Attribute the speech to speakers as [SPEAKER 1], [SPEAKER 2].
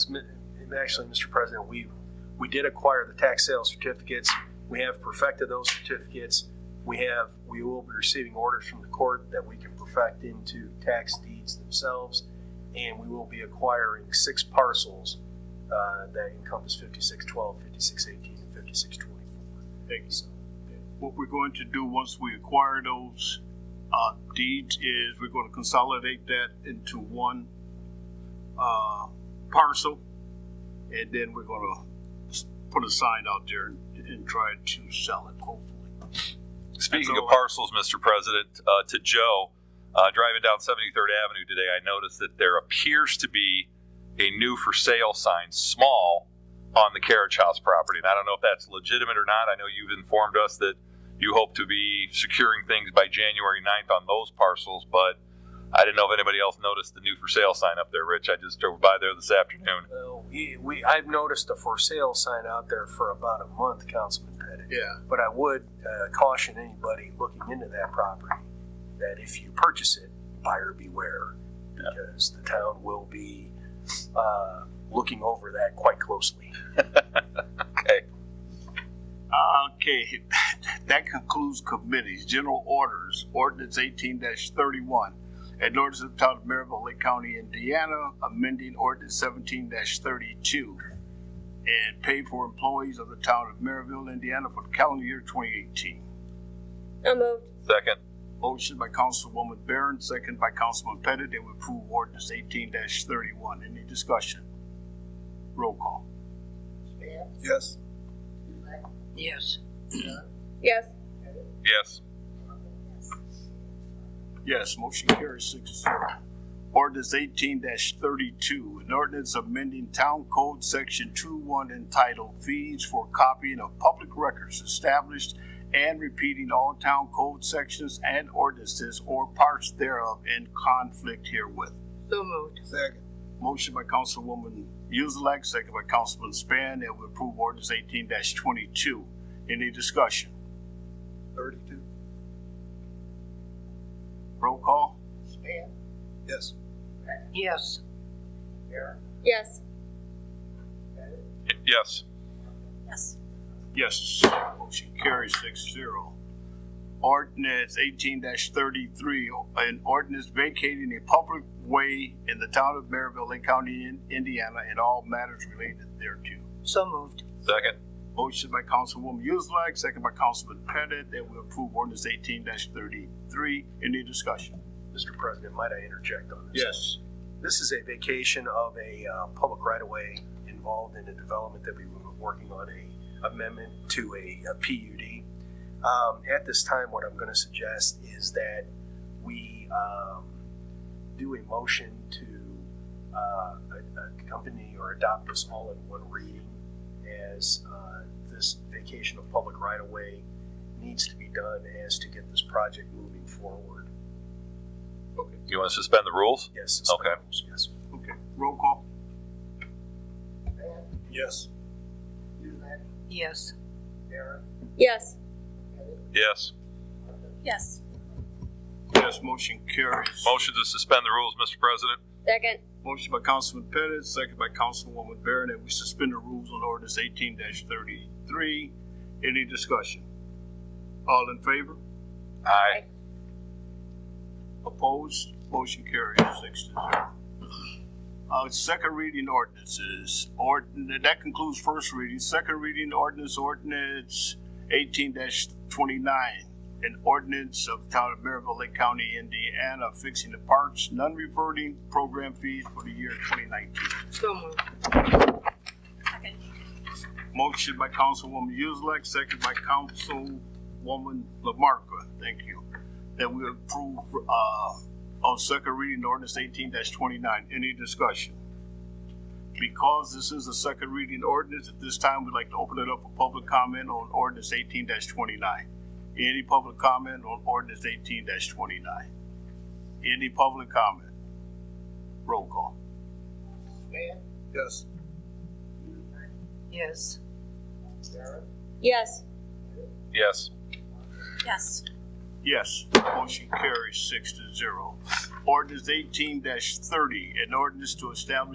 [SPEAKER 1] mi- and actually, Mr. President, we, we did acquire the tax sale certificates. We have perfected those certificates. We have, we will be receiving orders from the court that we can perfect into tax deeds themselves. And we will be acquiring six parcels uh, that encompass 5612, 5618, and 5624.
[SPEAKER 2] Thank you.
[SPEAKER 1] So,
[SPEAKER 2] What we're going to do once we acquire those uh, deeds is we're going to consolidate that into one uh, parcel, and then we're going to put a sign out there and, and try to sell it. Hopefully,
[SPEAKER 3] Speaking
[SPEAKER 2] That's
[SPEAKER 3] of
[SPEAKER 2] all I-
[SPEAKER 3] parcels, Mr. President, uh, to Joe, uh, driving down 73rd Avenue today, I noticed that there appears to be a new for sale sign, small, on the carriage house property. And I don't know if that's legitimate or not. I know you've informed us that you hope to be securing things by January 9th on those parcels, but I didn't know if anybody else noticed the new for sale sign up there, Rich. I just drove by there this afternoon.
[SPEAKER 1] well, we, we, I've noticed a for sale sign out there for about a month, Councilman Pettit.
[SPEAKER 2] yeah.
[SPEAKER 1] But I would uh, caution anybody looking into that property that if you purchase it, buyer beware, because the town will be uh, looking over that quite closely.
[SPEAKER 2] Okay, that concludes committees. General orders, ordinance eighteen thirty-one. An ordinance of the town of Maryville, Lake County, Indiana, amending ordinance seventeen thirty-two. And pay for employees of the town of Maryville, Indiana for the calendar year twenty eighteen.
[SPEAKER 4] So moved.
[SPEAKER 3] Second,
[SPEAKER 2] Motion by Councilwoman Barron, second by Councilman Pettit, that we approve ordinance eighteen thirty-one. Any discussion? Roll call.
[SPEAKER 1] Yes.
[SPEAKER 5] Yes.
[SPEAKER 4] Yes.
[SPEAKER 3] yes.
[SPEAKER 2] Yes, motion carries six to zero. Ordinance eighteen thirty-two, an ordinance amending Town Code Section two one entitled Fees for Copying of Public Records Established and repeating all Town Code sections and ordinances or parts thereof in conflict herewith.
[SPEAKER 5] So moved.
[SPEAKER 2] Motion by Councilwoman Yuzelak, second by Councilman Span, that we approve ordinance eighteen twenty-two. Any discussion?
[SPEAKER 1] Thirty-two.
[SPEAKER 2] Roll call?
[SPEAKER 1] Yes.
[SPEAKER 5] Yes.
[SPEAKER 4] Yes.
[SPEAKER 3] Yes.
[SPEAKER 2] Yes, motion carries six zero. Ordinance eighteen thirty-three, an ordinance vacating a public way in the town of Maryville, Lake County, in- Indiana, and all matters related thereto.
[SPEAKER 5] So moved.
[SPEAKER 3] Second,
[SPEAKER 2] Motion by Councilwoman Yuzlak, second by Councilman Pettit, that we approve ordinance eighteen thirty-three. Any discussion?
[SPEAKER 1] Mr. President, might I interject on this? This is a vacation of a uh, public right-of-way involved in a development that we were working on a amendment to a, a PUD. Um, at this time, what I'm going to suggest is that we um, do a motion to uh, a- accompany or adopt this all in one reading, as uh, this vacation of public right-of-way needs to be done as to get this project moving forward.
[SPEAKER 3] you want to suspend the rules?
[SPEAKER 1] Yes. suspend
[SPEAKER 3] Okay.
[SPEAKER 1] rules, Yes.
[SPEAKER 2] Okay, roll call?
[SPEAKER 1] Yes.
[SPEAKER 5] Yes.
[SPEAKER 4] Yes.
[SPEAKER 3] Yes.
[SPEAKER 4] Yes.
[SPEAKER 2] Yes, motion carries.
[SPEAKER 3] Motion to suspend the rules, Mr. President.
[SPEAKER 4] Second.
[SPEAKER 2] Motion by Councilman Pettit, second by Councilwoman Barron, that we suspend the rules on ordinance eighteen thirty-three. Any discussion? All in favor?
[SPEAKER 3] Aye.
[SPEAKER 2] Opposed? Motion carries six to zero. Uh, second reading ordinances, ordin, that concludes first reading. Second reading ordinance, ordinance eighteen twenty-nine. An ordinance of the Town of Maryville, Lake County, Indiana, fixing the parks, non-reverting program fees for the year twenty nineteen.
[SPEAKER 5] So moved.
[SPEAKER 2] Motion by Councilwoman Yuzlak, second by Councilwoman Lamarcus. Thank you. That we approve, uh, on second reading ordinance eighteen twenty-nine. Any discussion? Because this is a second reading ordinance, at this time, we'd like to open it up for public comment on ordinance eighteen twenty-nine. Any public comment on ordinance eighteen twenty-nine? Any public comment? Roll call. Yes.
[SPEAKER 5] Yes.
[SPEAKER 4] Yes.
[SPEAKER 3] Yes.
[SPEAKER 4] Yes.
[SPEAKER 2] Yes, motion carries six to zero. Ordinance eighteen thirty, an ordinance to establish